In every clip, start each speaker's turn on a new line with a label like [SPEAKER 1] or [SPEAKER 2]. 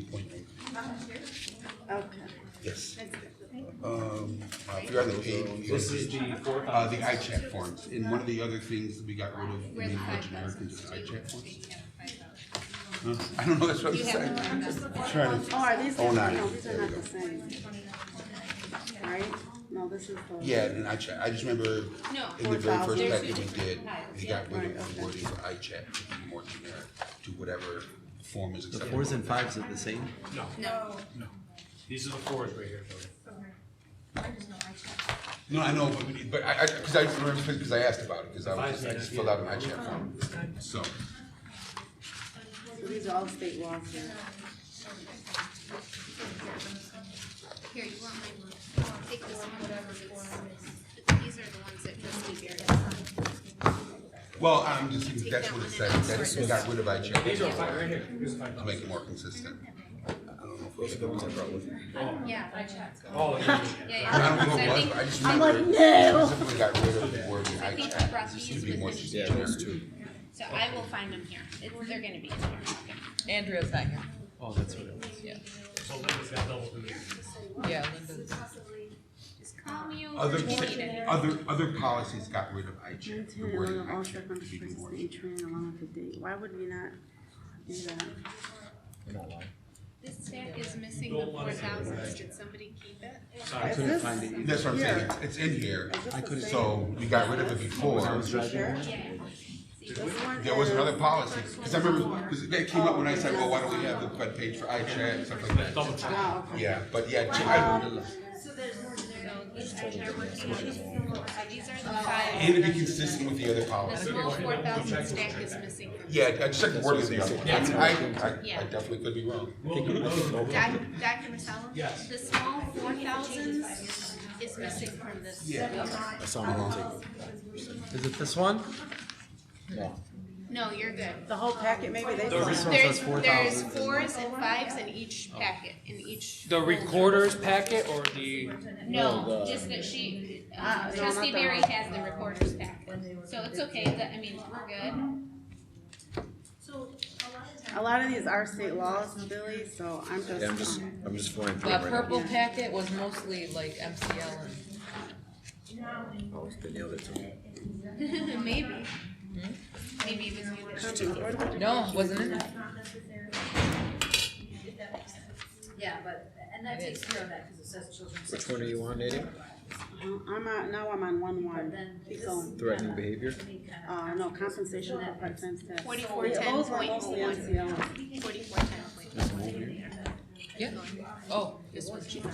[SPEAKER 1] 8.9.
[SPEAKER 2] Okay.
[SPEAKER 1] Yes. Um, uh, if you're on the page.
[SPEAKER 3] This is the four.
[SPEAKER 1] Uh, the iChat forms, and one of the other things that we got rid of, made more generic is the iChat forms. Huh? I don't know, that's what I'm saying. I'm Trying
[SPEAKER 2] Oh,
[SPEAKER 1] to,
[SPEAKER 2] are these,
[SPEAKER 1] Oh,
[SPEAKER 2] no,
[SPEAKER 1] nine.
[SPEAKER 2] these are
[SPEAKER 1] There we
[SPEAKER 2] not
[SPEAKER 1] go.
[SPEAKER 2] the same. Right? No, this is the.
[SPEAKER 1] yeah, and iChat, I just remember in the very first packet we did, they got rid of the wording for iChat to be more generic to whatever form is
[SPEAKER 4] The
[SPEAKER 1] acceptable.
[SPEAKER 4] fours and fives are the same?
[SPEAKER 3] No.
[SPEAKER 5] No.
[SPEAKER 3] No. These are the fours right here, Tony.
[SPEAKER 1] No, I know, but, but I, I, cause I remember, cause I asked about it, cause I was, just-
[SPEAKER 3] Five's
[SPEAKER 1] I
[SPEAKER 3] not
[SPEAKER 1] just
[SPEAKER 3] here.
[SPEAKER 1] filled out an iChat form, so.
[SPEAKER 2] So These are all state laws here.
[SPEAKER 5] Here, you want my one? I'll take this one, whatever it's, these are the ones that trustee Garrett signed.
[SPEAKER 1] Well, I'm just, thinking
[SPEAKER 5] Take
[SPEAKER 1] that's
[SPEAKER 5] that
[SPEAKER 1] what it
[SPEAKER 5] one and
[SPEAKER 1] says, that's, we got rid of iChat
[SPEAKER 3] These are five right here. Here's five.
[SPEAKER 1] to make it more consistent.
[SPEAKER 5] Yeah, I checked.
[SPEAKER 3] Oh, yeah, yeah, yeah.
[SPEAKER 5] Yeah,
[SPEAKER 1] I
[SPEAKER 5] yeah.
[SPEAKER 1] don't know
[SPEAKER 5] So
[SPEAKER 1] who it
[SPEAKER 5] I
[SPEAKER 1] was,
[SPEAKER 5] think,
[SPEAKER 1] but I just
[SPEAKER 5] I
[SPEAKER 1] remember specifically got rid of the word
[SPEAKER 5] I think I brought
[SPEAKER 1] iChat, just to
[SPEAKER 5] these
[SPEAKER 1] be
[SPEAKER 5] with
[SPEAKER 1] more
[SPEAKER 5] me.
[SPEAKER 1] generic.
[SPEAKER 5] so I will find them here. It- They're gonna be in here. Okay.
[SPEAKER 6] Andrea's not here.
[SPEAKER 4] Oh, that's what it was.
[SPEAKER 6] Yeah.
[SPEAKER 3] So Linda's got double duty.
[SPEAKER 6] Yeah, Linda's.
[SPEAKER 5] Just call me over
[SPEAKER 1] Other,
[SPEAKER 5] if you need anything.
[SPEAKER 1] other, other policies got rid of iChat, the
[SPEAKER 2] Maintain
[SPEAKER 1] word
[SPEAKER 2] along all
[SPEAKER 1] iChat to be
[SPEAKER 2] circumstances
[SPEAKER 1] more.
[SPEAKER 2] the atrium along with the date. Why would we not do that?
[SPEAKER 5] This stack is missing the four thousands. Did somebody keep it?
[SPEAKER 3] Sorry.
[SPEAKER 2] Is
[SPEAKER 4] couldn't
[SPEAKER 2] this-
[SPEAKER 4] find it either.
[SPEAKER 1] That's what I'm saying,
[SPEAKER 2] Yeah.
[SPEAKER 1] it's in here,
[SPEAKER 2] is this
[SPEAKER 4] I
[SPEAKER 2] the
[SPEAKER 4] couldn't-
[SPEAKER 2] same?
[SPEAKER 1] so we got rid of it before.
[SPEAKER 4] I was driving
[SPEAKER 2] Sure.
[SPEAKER 4] around.
[SPEAKER 2] This one
[SPEAKER 1] There was
[SPEAKER 2] is-
[SPEAKER 1] another policy, cause I remember, cause that came up when I said, well, why don't we have the front page for iChat and stuff like that.
[SPEAKER 3] Double check.
[SPEAKER 2] Oh, okay.
[SPEAKER 1] Yeah, but yeah, I,
[SPEAKER 5] So these are, they're working on, so these are the five.
[SPEAKER 1] and to be consistent with the other
[SPEAKER 5] The
[SPEAKER 1] policies.
[SPEAKER 5] small four thousand stack is missing. from-
[SPEAKER 1] Yeah, I checked the wording the other one. I, I, I
[SPEAKER 5] Yeah.
[SPEAKER 1] definitely could be wrong.
[SPEAKER 3] We'll do
[SPEAKER 4] Oh.
[SPEAKER 3] those.
[SPEAKER 5] Doc- Dr. Marcelo?
[SPEAKER 3] Yes.
[SPEAKER 5] The small four thousands is missing from this.
[SPEAKER 1] Yeah.
[SPEAKER 4] Is it this one?
[SPEAKER 5] No, you're good.
[SPEAKER 2] The whole packet, maybe they. saw
[SPEAKER 4] This
[SPEAKER 2] it.
[SPEAKER 4] one says
[SPEAKER 5] There's,
[SPEAKER 4] four
[SPEAKER 5] there's
[SPEAKER 4] thousand.
[SPEAKER 5] fours and fives in each packet, in each.
[SPEAKER 7] The
[SPEAKER 5] folder.
[SPEAKER 7] recorder's packet or the,
[SPEAKER 5] No, just that she,
[SPEAKER 2] Ah,
[SPEAKER 5] uh,
[SPEAKER 2] no,
[SPEAKER 5] trustee
[SPEAKER 2] not that
[SPEAKER 5] Mary
[SPEAKER 2] one.
[SPEAKER 5] has the recorder's packet, so it's okay, that, I mean, we're good.
[SPEAKER 2] A lot of these are state laws, Billy, so I'm just. um,
[SPEAKER 8] Yeah, I'm just, I'm just flying through
[SPEAKER 6] The
[SPEAKER 8] it right
[SPEAKER 6] purple packet was mostly like MCL and.
[SPEAKER 8] now. Oh, it's been the other two.
[SPEAKER 5] Maybe. Maybe it was me that-
[SPEAKER 6] No, wasn't it?
[SPEAKER 9] Yeah, but, and that takes care of that, cause it says children's.
[SPEAKER 8] Which one are you on, Nadia?
[SPEAKER 2] I'm on, now I'm on one one.
[SPEAKER 9] Then
[SPEAKER 2] Keep
[SPEAKER 9] this
[SPEAKER 2] going.
[SPEAKER 8] Threatening behavior?
[SPEAKER 9] Any kind of-
[SPEAKER 2] Uh, no, compensation for part-time staff.
[SPEAKER 5] 4410.01.
[SPEAKER 2] Those were mostly MCL.
[SPEAKER 5] forty-four ten point one.
[SPEAKER 6] Yeah. Oh, this was cheaper.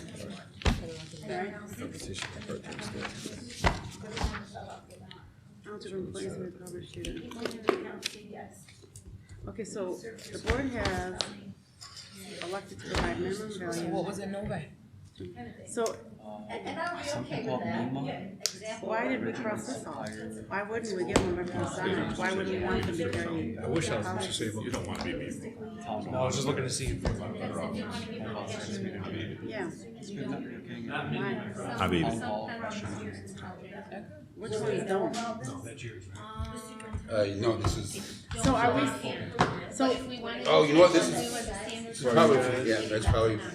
[SPEAKER 2] Right.
[SPEAKER 8] Compensation for part-time staff.
[SPEAKER 2] Eligible employees who are covered students. Okay, so the board has elected to provide minimum
[SPEAKER 6] What
[SPEAKER 2] value.
[SPEAKER 6] was it, Nova?
[SPEAKER 2] So
[SPEAKER 9] And, and I'll be okay with that, yeah, exactly.
[SPEAKER 2] why did we cross this off? Why wouldn't we give them a reference salary? Why would we want them to carry? I wish I was disabled.
[SPEAKER 7] no, I was just looking to see.
[SPEAKER 2] Yeah.
[SPEAKER 3] Not me.
[SPEAKER 2] Why? Which ones don't?
[SPEAKER 3] That's yours, right?
[SPEAKER 1] Uh, no, this is,
[SPEAKER 2] Um, So are we, so,
[SPEAKER 5] If we wanted.
[SPEAKER 1] Oh, you know what, this
[SPEAKER 5] to
[SPEAKER 1] is-
[SPEAKER 5] do a standard-
[SPEAKER 1] this is probably, yeah, that's probably.
[SPEAKER 2] okay,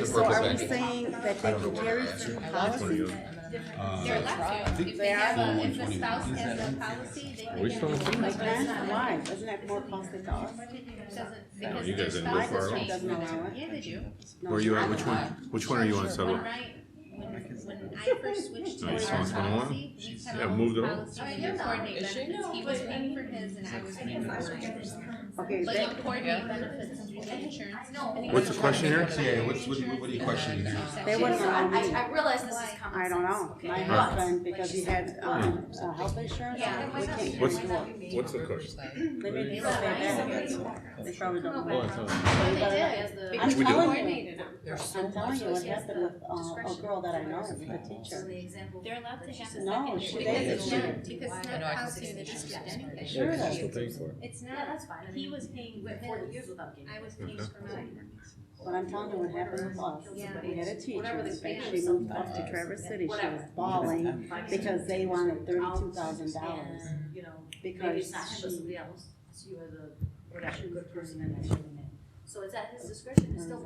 [SPEAKER 1] the
[SPEAKER 2] so
[SPEAKER 1] purple
[SPEAKER 2] are we
[SPEAKER 1] packet.
[SPEAKER 2] saying that they can carry through policies?
[SPEAKER 1] Uh,
[SPEAKER 5] They're allowed to, if they have a, if the spouse has a policy, they can. Which
[SPEAKER 2] Like, huh? why? Isn't that more costly to us?
[SPEAKER 5] No,
[SPEAKER 8] you guys didn't go
[SPEAKER 2] My district doesn't allow it.
[SPEAKER 5] Yeah, they do.
[SPEAKER 2] No,
[SPEAKER 8] Where you at, which
[SPEAKER 2] I-
[SPEAKER 8] one, which one are you on, Salo?
[SPEAKER 5] When I, when, when I first switched to
[SPEAKER 8] Oh, you saw
[SPEAKER 5] our
[SPEAKER 8] it's 101?
[SPEAKER 5] policy, we had
[SPEAKER 8] Yeah,
[SPEAKER 5] a
[SPEAKER 8] moved it over.
[SPEAKER 5] policy to coordinate
[SPEAKER 6] Is she?
[SPEAKER 5] benefits. He was paying for his and I was paying for mine.
[SPEAKER 2] Okay,
[SPEAKER 5] But
[SPEAKER 2] that,
[SPEAKER 5] you coordinate benefits through the insurance company.
[SPEAKER 8] What's the question here?
[SPEAKER 1] Yeah, what's, what, what are you questioning there?
[SPEAKER 2] They wouldn't allow me.
[SPEAKER 9] I, I realize this is common
[SPEAKER 2] I don't know,
[SPEAKER 9] sense,
[SPEAKER 2] my
[SPEAKER 9] okay?
[SPEAKER 2] husband, because he had, um, uh, health insurance,
[SPEAKER 9] Yeah.
[SPEAKER 2] we can't carry
[SPEAKER 8] What's-
[SPEAKER 2] more.
[SPEAKER 8] What's the question?
[SPEAKER 2] They made me stay back, they probably don't know.
[SPEAKER 5] But they did,
[SPEAKER 2] I'm
[SPEAKER 5] because
[SPEAKER 8] we
[SPEAKER 5] you
[SPEAKER 8] do.
[SPEAKER 5] coordinated them.
[SPEAKER 6] There's so
[SPEAKER 2] I'm telling
[SPEAKER 6] much.
[SPEAKER 2] you, what happened with, uh, a girl that I know, a teacher.
[SPEAKER 5] They're allowed to have a
[SPEAKER 2] No,
[SPEAKER 5] second
[SPEAKER 2] she
[SPEAKER 5] issue because
[SPEAKER 2] didn't.
[SPEAKER 5] it's not, because it's
[SPEAKER 6] I
[SPEAKER 5] not
[SPEAKER 6] know, I can
[SPEAKER 5] policy
[SPEAKER 6] see
[SPEAKER 5] in the
[SPEAKER 6] the issues.
[SPEAKER 5] district anyway.
[SPEAKER 2] Sure, that's
[SPEAKER 8] Still paying for it.
[SPEAKER 5] It's
[SPEAKER 9] Yeah,
[SPEAKER 5] not,
[SPEAKER 9] that's fine. I
[SPEAKER 5] he
[SPEAKER 9] mean,
[SPEAKER 5] was paying
[SPEAKER 9] we
[SPEAKER 5] for
[SPEAKER 9] went forty years
[SPEAKER 5] his,
[SPEAKER 9] without getting.
[SPEAKER 5] I was paying for mine.
[SPEAKER 2] But I'm telling you what happened with us, we had a teacher,
[SPEAKER 9] Whatever the
[SPEAKER 2] that
[SPEAKER 9] span
[SPEAKER 2] she
[SPEAKER 9] is.
[SPEAKER 2] moved up to Traverse City, she was bawling because they wanted thirty-two thousand dollars.
[SPEAKER 9] And, you know, maybe
[SPEAKER 2] Because
[SPEAKER 9] it's not him, but
[SPEAKER 2] she-
[SPEAKER 9] somebody else, so you are the, you're actually a good person and actually, So it's at his discretion, it's still